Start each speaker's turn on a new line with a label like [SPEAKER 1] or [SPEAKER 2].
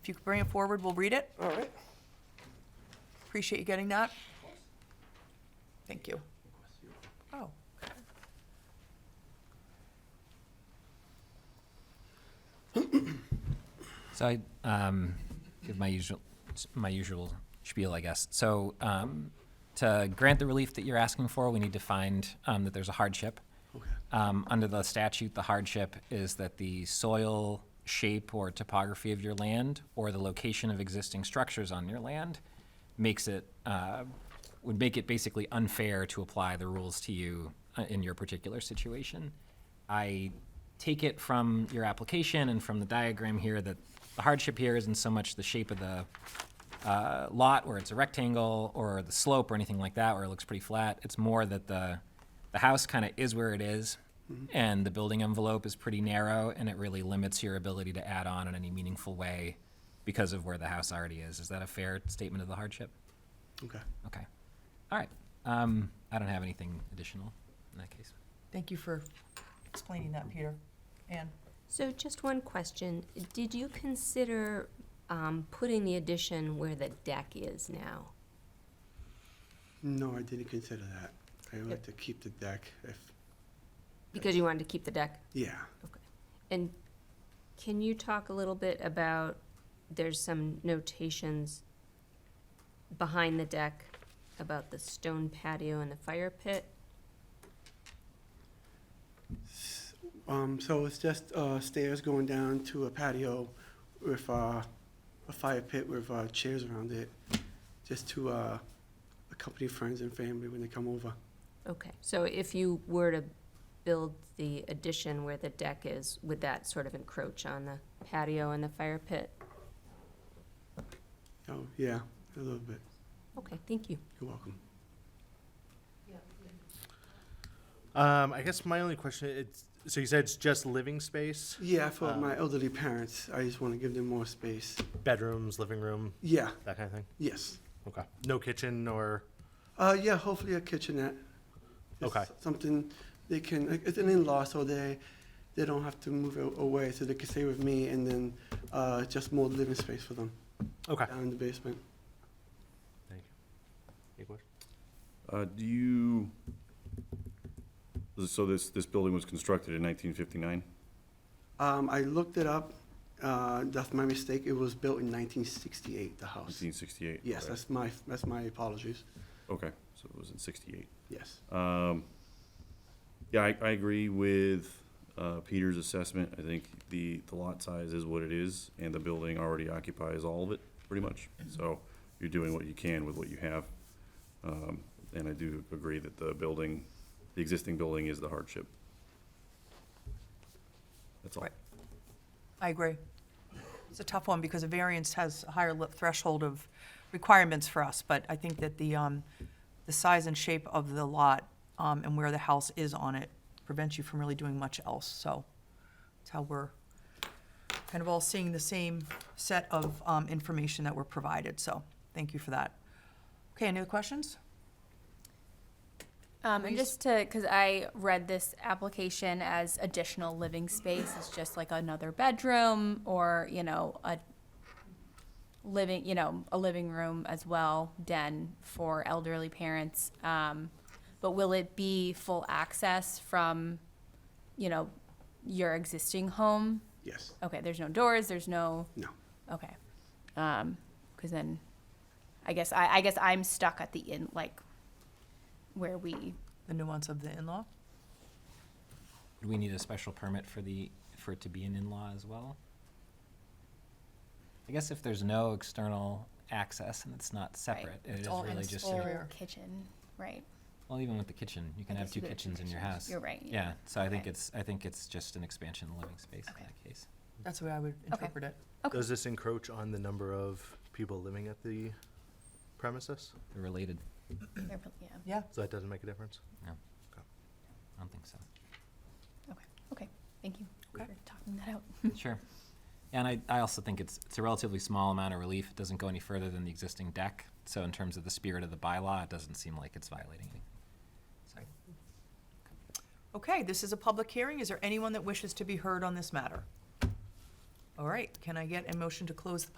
[SPEAKER 1] If you could bring it forward, we'll read it.
[SPEAKER 2] All right.
[SPEAKER 1] Appreciate you getting that. Thank you. Oh,
[SPEAKER 3] So I um, give my usual my usual spiel, I guess. So um, to grant the relief that you're asking for, we need to find um, that there's a hardship. Um, under the statute, the hardship is that the soil shape or topography of your land or the location of existing structures on your land makes it uh, would make it basically unfair to apply the rules to you uh, in your particular situation. I take it from your application and from the diagram here that the hardship here isn't so much the shape of the uh, lot where it's a rectangle or the slope or anything like that where it looks pretty flat. It's more that the, the house kind of is where it is, and the building envelope is pretty narrow and it really limits your ability to add on in any meaningful way because of where the house already is. Is that a fair statement of the hardship?
[SPEAKER 2] Okay.
[SPEAKER 3] Okay. All right. Um, I don't have anything additional in that case.
[SPEAKER 1] thank you for explaining that, Peter. Anne?
[SPEAKER 4] So just one question. Did you consider um, putting the addition where the deck is now?
[SPEAKER 2] No, I didn't consider that. I would like to keep the deck if,
[SPEAKER 4] Because you wanted to keep the deck?
[SPEAKER 2] yeah.
[SPEAKER 4] Okay. And can you talk a little bit about, there's some notations behind the deck about the stone patio and the fire pit?
[SPEAKER 2] Um, so it's just, uh, stairs going down to a patio with, uh, a fire pit with, uh, chairs around it, just to, uh, accompany friends and family when they come over.
[SPEAKER 4] Okay, so if you were to build the addition where the deck is, would that sort of encroach on the patio and the fire pit?
[SPEAKER 2] Oh, yeah, a little bit.
[SPEAKER 4] Okay, thank you.
[SPEAKER 2] You're welcome.
[SPEAKER 5] Um, I guess my only question it's so you said it's just living space,
[SPEAKER 2] Yeah, for
[SPEAKER 5] Um,
[SPEAKER 2] my elderly parents, I just want to give them more space.
[SPEAKER 5] bedrooms, living room,
[SPEAKER 2] Yeah,
[SPEAKER 5] that kind of thing.
[SPEAKER 2] yes.
[SPEAKER 5] Okay. No kitchen or
[SPEAKER 2] Uh, yeah, hopefully a kitchenette. Just
[SPEAKER 5] Okay.
[SPEAKER 2] Something they can, like, it's an in-law, so they, they don't have to move a- away, so they can stay with me, and then, uh, just more living space for them
[SPEAKER 6] Ah.
[SPEAKER 5] okay.
[SPEAKER 2] down in the basement.
[SPEAKER 5] Thank you. Any question?
[SPEAKER 6] Uh, do you, so this, this building was constructed in nineteen fifty-nine?
[SPEAKER 2] Um, I looked it up, uh, that's my mistake, it was built in nineteen sixty-eight, the house.
[SPEAKER 6] Nineteen sixty-eight?
[SPEAKER 2] Yes, that's my, that's my apologies,
[SPEAKER 6] Okay, so it was in sixty-eight.
[SPEAKER 2] yes.
[SPEAKER 6] Um, yeah, I, I agree with, uh, Peter's assessment. I think the, the lot size is what it is, and the building already occupies all of it, pretty much. So you're doing what you can with what you have. Um, and I do agree that the building, the existing building is the hardship. That's all.
[SPEAKER 1] Right. I agree. It's a tough one because a variance has a higher li- threshold of requirements for us, but I think that the, um, the size and shape of the lot, um, and where the house is on it prevents you from really doing much else, so it's how we're kind of all seeing the same set of, um, information that we're provided, so thank you for that. Okay, any other questions?
[SPEAKER 7] Um,
[SPEAKER 1] Please.
[SPEAKER 7] and just to, because I read this application as additional living space, it's just like another bedroom or, you know, a living, you know, a living room as well, den for elderly parents. Um, but will it be full access from, you know, your existing home?
[SPEAKER 2] Yes,
[SPEAKER 7] Okay, there's no doors, there's no,
[SPEAKER 2] no,
[SPEAKER 7] okay. Um, cause then, I guess, I, I guess I'm stuck at the in, like, where we
[SPEAKER 1] The nuance of the in-law?
[SPEAKER 3] Do we need a special permit for the, for it to be an in-law as well? I guess if there's no external access and it's not separate, it is
[SPEAKER 1] all
[SPEAKER 3] really
[SPEAKER 1] ins-
[SPEAKER 3] just,
[SPEAKER 1] all
[SPEAKER 3] an-
[SPEAKER 1] Exterior.
[SPEAKER 7] kitchen, right?
[SPEAKER 3] well, even with the kitchen, you can
[SPEAKER 7] I
[SPEAKER 3] have
[SPEAKER 7] guess
[SPEAKER 3] two
[SPEAKER 7] you could have two
[SPEAKER 3] kitchens in your
[SPEAKER 7] kitchens.
[SPEAKER 3] house.
[SPEAKER 7] You're right, yeah.
[SPEAKER 3] Yeah, so I think
[SPEAKER 7] Okay.
[SPEAKER 3] it's, I think it's just an expansion of the living space in
[SPEAKER 7] Okay.
[SPEAKER 3] that case.
[SPEAKER 1] That's the way I would interpret it.
[SPEAKER 7] Okay.
[SPEAKER 5] Does this encroach on the number of people living at the premises?
[SPEAKER 3] They're related.
[SPEAKER 7] They're pro- Yeah,
[SPEAKER 1] Yeah,
[SPEAKER 5] So that doesn't make a difference.
[SPEAKER 3] No,
[SPEAKER 5] Okay.
[SPEAKER 3] I don't think so.
[SPEAKER 7] okay, okay, thank you for
[SPEAKER 1] Okay.
[SPEAKER 7] talking that out.
[SPEAKER 3] Sure. And I, I also think it's, it's a relatively small amount of relief. It doesn't go any further than the existing deck. So in terms of the spirit of the bylaw, it doesn't seem like it's violating anything. So,
[SPEAKER 1] Okay, this is a public hearing. Is there anyone that wishes to be heard on this matter? All right, can I get a motion to close the